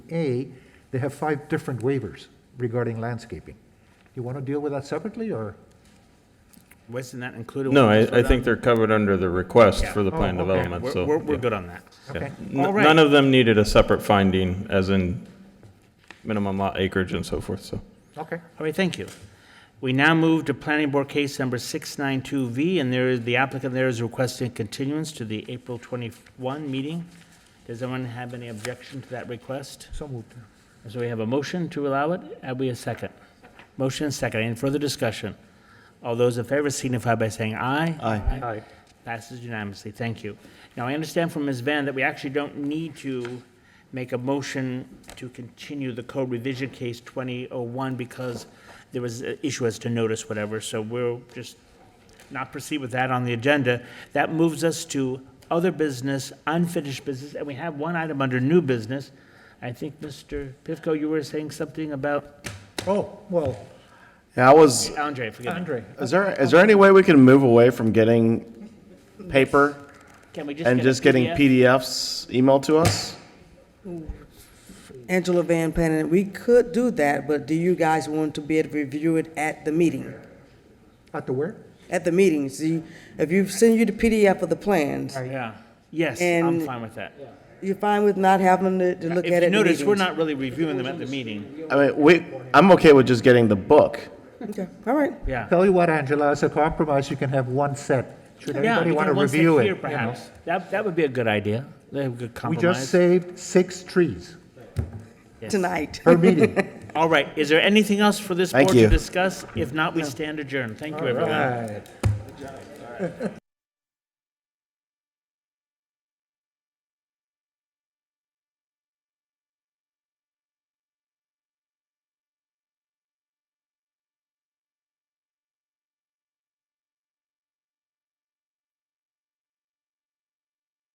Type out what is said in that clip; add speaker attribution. Speaker 1: A, they have five different waivers regarding landscaping. You want to deal with that separately, or?
Speaker 2: Wasn't that included?
Speaker 3: No,
Speaker 2: when we
Speaker 3: I, I
Speaker 2: voted
Speaker 3: think
Speaker 2: on-
Speaker 3: they're covered under the request
Speaker 2: Yeah.
Speaker 3: for the plan
Speaker 1: Oh, okay.
Speaker 3: development,
Speaker 2: We're,
Speaker 3: so.
Speaker 2: we're, we're
Speaker 3: yeah.
Speaker 2: good on that.
Speaker 3: Yeah.
Speaker 1: Okay,
Speaker 3: N-
Speaker 2: All right.
Speaker 3: None of them needed a separate finding, as in minimum lot acreage and so forth, so.
Speaker 1: okay.
Speaker 2: All right, thank you. We now move to planning board case number 692V, and there is, the applicant there is requesting continuance to the April 21 meeting. Does anyone have any objection to that request?
Speaker 1: So moved.
Speaker 2: So we have a motion to allow it, and we have a second. Motion and second, any further discussion? All those in favor signify by saying aye.
Speaker 4: Aye.
Speaker 1: Aye.
Speaker 2: Passes unanimously, thank you. Now, I understand from Ms. Van that we actually don't need to make a motion to continue the code revision case 2001 because there was an issue as to notice, whatever, so we'll just not proceed with that on the agenda. That moves us to other business, unfinished business, and we have one item under new business. I think, Mr. Pivko, you were saying something about,
Speaker 1: Oh, well,
Speaker 4: Yeah, I was,
Speaker 2: Andre, forgive me.
Speaker 1: Andre,
Speaker 4: is there, is there any way we can move away from getting paper
Speaker 2: Can we just
Speaker 4: and
Speaker 2: get a
Speaker 4: just getting
Speaker 2: PDF?
Speaker 4: PDFs emailed to us?
Speaker 5: Angela Van Panen, we could do that, but do you guys want to be able to review it at the meeting?
Speaker 1: at the where?
Speaker 5: At the meeting, see, if you send you the PDF of the plans,
Speaker 2: Yeah, yes, I'm
Speaker 5: And-
Speaker 2: fine with that.
Speaker 5: you're fine with not having to, to look at it
Speaker 2: If you
Speaker 5: at the
Speaker 2: notice, we're
Speaker 5: meetings?
Speaker 2: not really reviewing them at the meeting.
Speaker 4: I mean, we, I'm okay with just getting the book.
Speaker 5: Okay, all right.
Speaker 2: Yeah.
Speaker 1: Tell you what, Angela, as a compromise, you can have one set. Should
Speaker 2: Yeah,
Speaker 1: anybody
Speaker 2: we
Speaker 1: want to
Speaker 2: can one set
Speaker 1: review it?
Speaker 2: here,
Speaker 1: you know?
Speaker 2: perhaps. That, that would be a good idea. That would be a good
Speaker 1: We
Speaker 2: compromise.
Speaker 1: just saved six trees
Speaker 5: Tonight.
Speaker 1: per meeting.
Speaker 2: All right, is there anything else for this
Speaker 4: Thank
Speaker 2: board to
Speaker 4: you.
Speaker 2: discuss? If not, we stand adjourned. Thank you, everyone.
Speaker 1: Right.